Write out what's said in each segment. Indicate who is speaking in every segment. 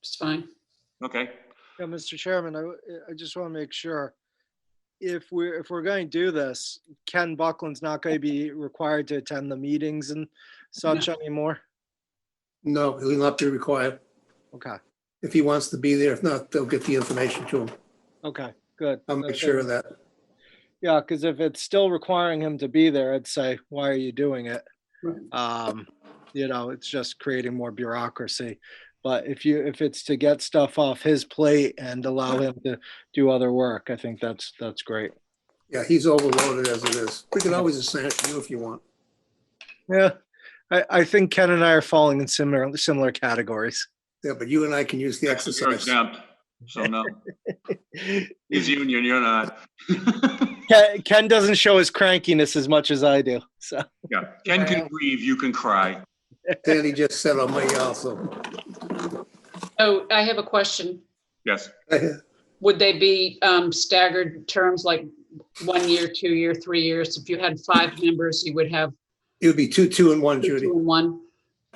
Speaker 1: It's fine.
Speaker 2: Okay,
Speaker 3: Yeah, Mr. Chairman, I, w- I just want to make sure. If we're, if we're going to do this, Ken Buckland's not going to be required to attend the meetings and such anymore?
Speaker 4: No, he'll not be required.
Speaker 3: Okay,
Speaker 4: If he wants to be there, if not, they'll get the information to him.
Speaker 3: okay, good.
Speaker 4: I'll make
Speaker 3: Okay.
Speaker 4: sure of that.
Speaker 3: Yeah, because if it's still requiring him to be there, I'd say, why are you doing it?
Speaker 1: Right.
Speaker 3: Um, you know, it's just creating more bureaucracy. But if you, if it's to get stuff off his plate and allow him to do other work, I think that's, that's great.
Speaker 4: Yeah, he's overloaded as it is. We can always assign it to you if you want.
Speaker 3: Yeah, I, I think Ken and I are falling in similar similar categories.
Speaker 4: Yeah, but you and I can use the
Speaker 2: Texas are
Speaker 4: exercise.
Speaker 2: exempt, so no, he's
Speaker 3: Ken,
Speaker 2: union, you're not.
Speaker 3: Ken doesn't show his crankiness as much as I do. So
Speaker 2: Yeah, Ken can grieve, you can cry.
Speaker 4: Danny just said on my also.
Speaker 1: Oh, I have a question.
Speaker 2: Yes,
Speaker 1: Would they be um, staggered terms like one year, two year, three years? If you had five members, you would have
Speaker 4: It would be two, two and one,
Speaker 1: two
Speaker 4: Judy.
Speaker 1: and one?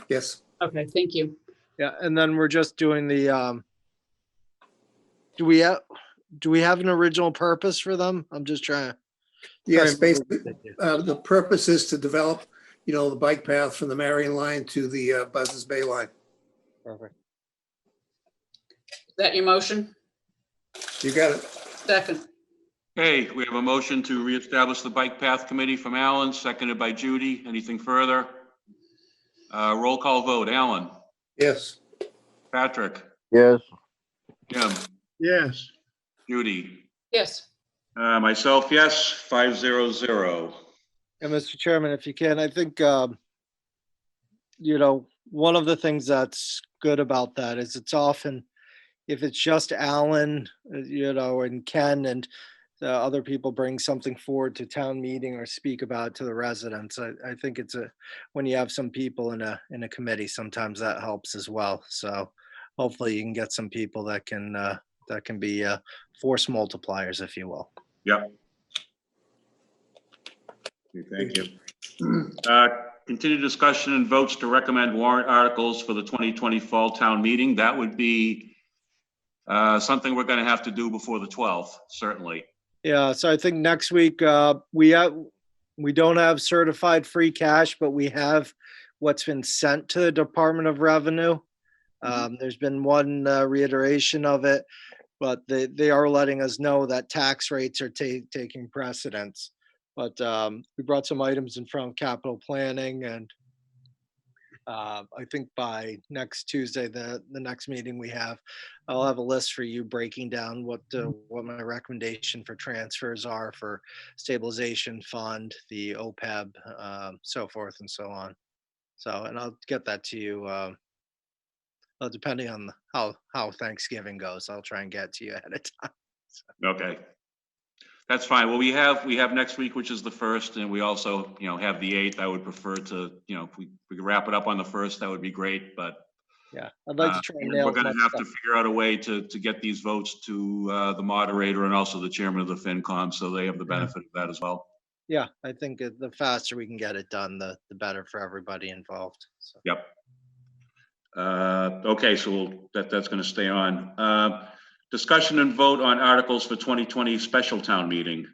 Speaker 4: Yes.
Speaker 1: Okay, thank you.
Speaker 3: yeah, and then we're just doing the. Um, do we have do we have an original purpose for them? I'm just trying. trying
Speaker 4: Yes,
Speaker 3: to-
Speaker 4: basically, uh, the purpose is to develop, you know, the bike path from the Marion line to the uh, Buzzards Bay line.
Speaker 3: Perfect.
Speaker 1: Is that your motion?
Speaker 4: You got it.
Speaker 1: Second.
Speaker 2: hey, we have a motion to reestablish the Bike Path Committee from Alan, seconded by Judy. Anything further? Uh, roll call vote, Alan,
Speaker 4: Yes.
Speaker 2: Patrick,
Speaker 5: Yes,
Speaker 2: Jim,
Speaker 4: Yes.
Speaker 2: Judy.
Speaker 1: Yes,
Speaker 2: Uh, myself, yes, five zero zero.
Speaker 3: And Mr. Chairman, if you can, I think, um, you know, one of the things that's good about that is it's often, if it's just Alan, uh, you know, and Ken and the other people bring something forward to town meeting or speak about to the residents, I, I think it's a, when you have some people in a, in a committee, sometimes that helps as well. So hopefully you can get some people that can, uh, that can be, uh, force multipliers, if you will.
Speaker 2: Thank you. Uh, Continued discussion and votes to recommend warrant articles for the 2020 Fall Town Meeting. That would be uh, something we're going to have to do before the 12th, certainly.
Speaker 3: Yeah, so I think next week, uh, we, uh, we don't have certified free cash, but we have what's been sent to the Department of Revenue. Um, there's been one uh, reiteration of it, but they, they are letting us know that tax rates are ta- taking precedence. But, um, we brought some items in from capital planning and, uh, I think by next Tuesday, the, the next meeting we have, I'll have a list for you breaking down what, uh, what my recommendation for transfers are for stabilization fund, the OPEB, um, so forth and so on. So, and I'll get that to you, um, well, depending on how, how Thanksgiving goes, I'll try and get to you ahead of time.
Speaker 2: Okay. That's fine. Well, we have, we have next week, which is the 1st, and we also, you know, have the 8th. I would prefer to, you know, if we we could wrap it up on the 1st, that would be great, but
Speaker 3: Yeah, I'd like
Speaker 2: Uh,
Speaker 3: to try and
Speaker 2: and
Speaker 3: nail
Speaker 2: We're
Speaker 3: as
Speaker 2: gonna
Speaker 3: much
Speaker 2: have to
Speaker 3: stuff.
Speaker 2: figure out a way to, to get these votes to uh, the moderator and also the chairman of the FinCom, so they have the benefit of that as well.
Speaker 3: Yeah, I think it- the faster we can get it done, the, the better for everybody involved. So,
Speaker 2: Uh, Okay, so we'll- that, that's going to stay on. Uh, Discussion and vote on articles for 2020 special town meeting.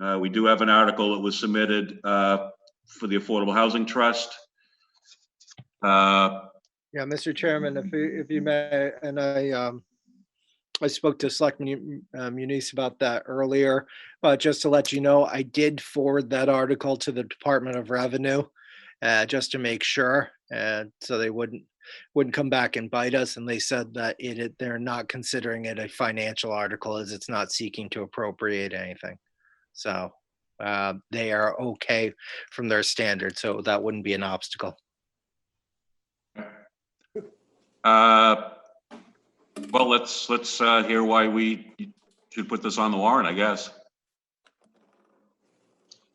Speaker 2: Uh, We do have an article that was submitted uh, for the Affordable Housing Trust. Uh,
Speaker 3: yeah, Mr. Chairman, if you, if you may, and I, um, I spoke to Selectman Mu- uh, Muniz about that earlier, but just to let you know, I did forward that article to the Department of Revenue, uh, just to make sure, and so they wouldn't, wouldn't come back and bite us, and they said that it, it- they're not considering it a financial article, as it's not seeking to appropriate anything. So, uh, they are okay from their standard, so that wouldn't be an obstacle.
Speaker 2: uh, Well, let's, let's uh, hear why we should put this on the warrant, I guess.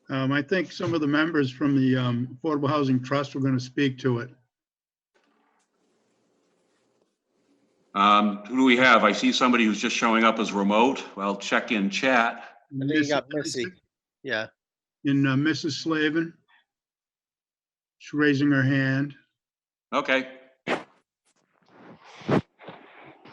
Speaker 6: Um, I think some of the members from the, um, Affordable Housing Trust were gonna speak to it.
Speaker 2: Um, Who do we have? I see somebody who's just showing up as remote. Well, check in chat.
Speaker 3: I think you got Missy, yeah.
Speaker 6: And uh, Mrs. Slavin. She's raising her hand.
Speaker 2: Okay,